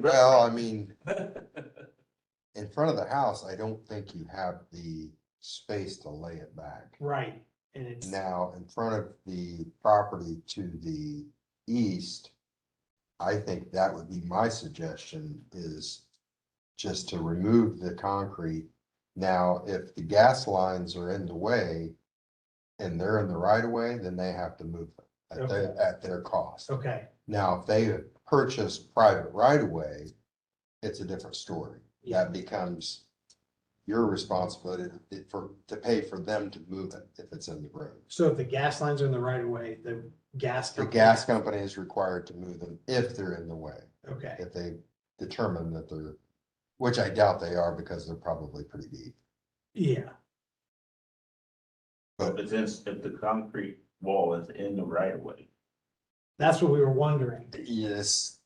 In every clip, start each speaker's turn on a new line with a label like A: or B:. A: Well, I mean, in front of the house, I don't think you have the space to lay it back.
B: Right, and it's,
A: Now, in front of the property to the east, I think that would be my suggestion is just to remove the concrete. Now, if the gas lines are in the way and they're in the right of way, then they have to move it at their, at their cost.
B: okay,
A: Now, if they purchase private right of way, it's a different story.
B: Yeah.
A: That becomes your responsibility to- for, to pay for them to move it if it's in the road.
B: so if the gas lines are in the right of way, the gas.
A: The
B: company-
A: gas company is required to move them if they're in the way,
B: Okay,
A: if they determine that they're, which I doubt they are because they're probably pretty deep.
B: yeah,
C: If it's in, if the concrete wall is in the right of way.
B: that's what we were wondering,
A: Yes,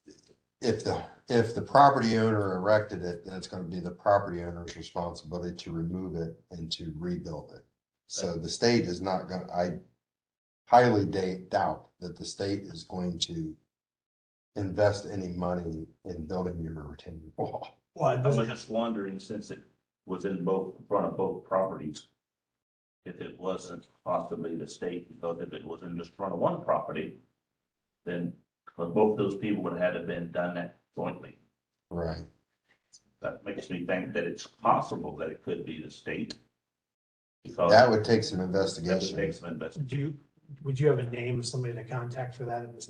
A: if the, if the property owner erected it, then it's gonna be the property owner's responsibility to remove it and to rebuild it. So the state is not gonna, I highly da- doubt that the state is going to invest any money in building your retaining wall.
B: well,
C: I was just wondering, since it was in both, in front of both properties, if it wasn't possibly the state, because if it was in just front of one property, then but both those people would have had to been done that jointly.
A: Right.
C: That makes me think that it's possible that it could be the state. Because
A: That would take some
C: that would
A: investigation.
C: take some invest-
B: do you, would you have a name of somebody to contact for that in this?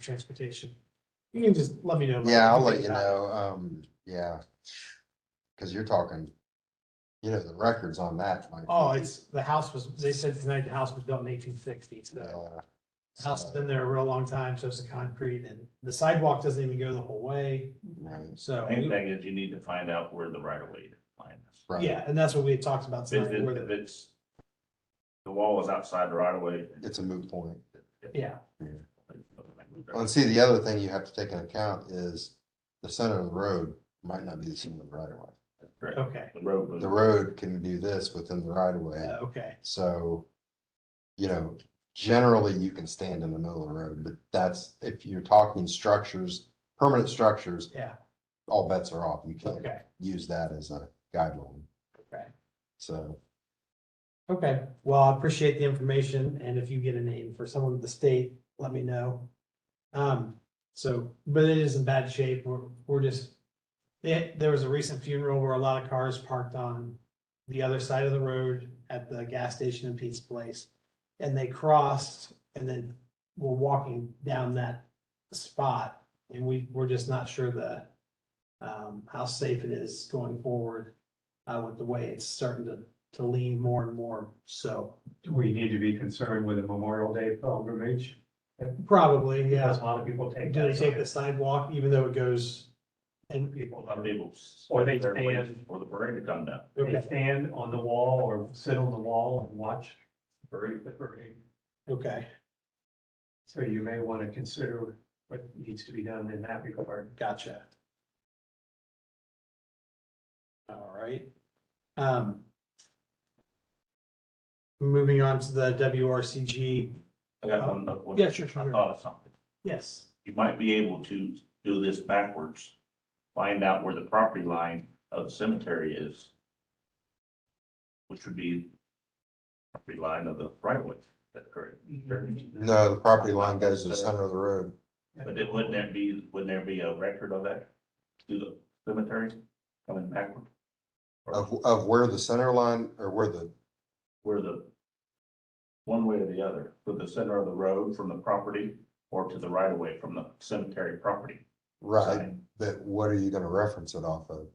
B: Transportation, you can just let me know.
A: Yeah, I'll let you know, um, yeah. Cause you're talking, you know, the records on that. might be-
B: Oh, it's, the house was, they said tonight the house was built in eighteen sixty, so
A: Yeah.
B: the Uh, house has been there a real long time, so it's a concrete, and the sidewalk doesn't even go the whole way,
A: Right,
B: so.
C: Main thing is you need to find out where the right of way is. Find this.
A: right.
B: Yeah, and that's what we had talked about
C: If
B: tonight,
C: it-
B: where
C: if
B: the,
C: it's, the wall is outside the right of way.
A: It's a moot point.
B: yeah,
A: And see, the other thing you have to take into account is the center of the road might not be the center of the right of way.
C: Correct.
B: okay,
C: The road was.
A: The road can do this within the right of
B: uh,
A: way,
B: okay,
A: so, you know, generally you can stand in the middle of the road, but that's, if you're talking structures, permanent structures,
B: yeah,
A: all bets are off. You can't
B: okay,
A: use that as a guideline,
B: okay.
A: so.
B: Okay, well, I appreciate the information, and if you get a name for someone at the state, let me know. Um, so, but it is in bad shape, we're, we're just, there, there was a recent funeral where a lot of cars parked on the other side of the road at the gas station in Pete's Place, and they crossed and then were walking down that spot, and we, we're just not sure the, um, how safe it is going forward, uh, with the way it's starting to to lean more and more. So
D: Do we need to be concerned with a Memorial Day pilgrimage?
B: probably,
D: Because
B: yeah.
D: a lot of people take.
B: Do they
D: that
B: take the
D: road.
B: sidewalk even though it goes and
C: A
D: People,
C: lot of people.
D: Or they
C: they're waiting
D: stand.
C: For the parade to come down.
D: they
B: Okay,
D: stand on the wall or sit on the wall and watch the parade, the parade.
B: okay,
D: So you may want to consider what needs to be done in that regard.
B: gotcha. All right. Um. Moving on to the WRCG.
C: I got one, other one.
B: Yeah, sure,
C: I
B: sure.
C: thought of something.
B: Yes,
C: You might be able to do this backwards. Find out where the property line of the cemetery is. Which would be property line of the right of way. That's correct.
B: Mm-hmm.
A: No, the property line goes to the center of the road.
C: But it, wouldn't there be, wouldn't there be a record of that to the cemetery coming backward?
A: Of, of where the center line or where the,
C: Where the, one way or the other, to the center of the road from the property or to the right of way from the cemetery property.
A: right, but what are you gonna reference it off of?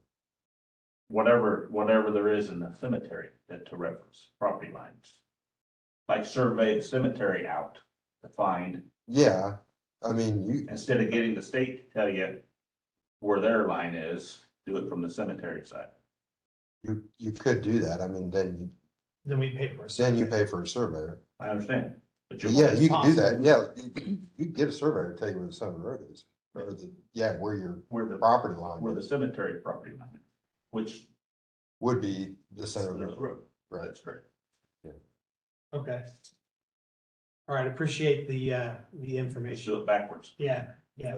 C: Whatever, whatever there is in the cemetery that to reference property lines. Like survey the cemetery out to find,
A: Yeah, I mean, you,
C: instead of getting the state to tell you where their line is, do it from the cemetery side.
A: you, you could do that. I mean, then, you-
B: then we pay for it.
A: then you pay for a surveyor.
C: I understand. but you're-
A: Yeah, you can do that. Yeah, you, you can get a surveyor to tell you where the center of the road is. Or the, yeah, where your
C: Where the
A: property line
C: where the
A: is
C: cemetery property line, which.
A: would be the
C: is
A: center of the road, right?
C: That's correct.
B: Okay. All right, appreciate the uh, the
C: They
B: information.
C: do it backwards.
B: Yeah, yeah,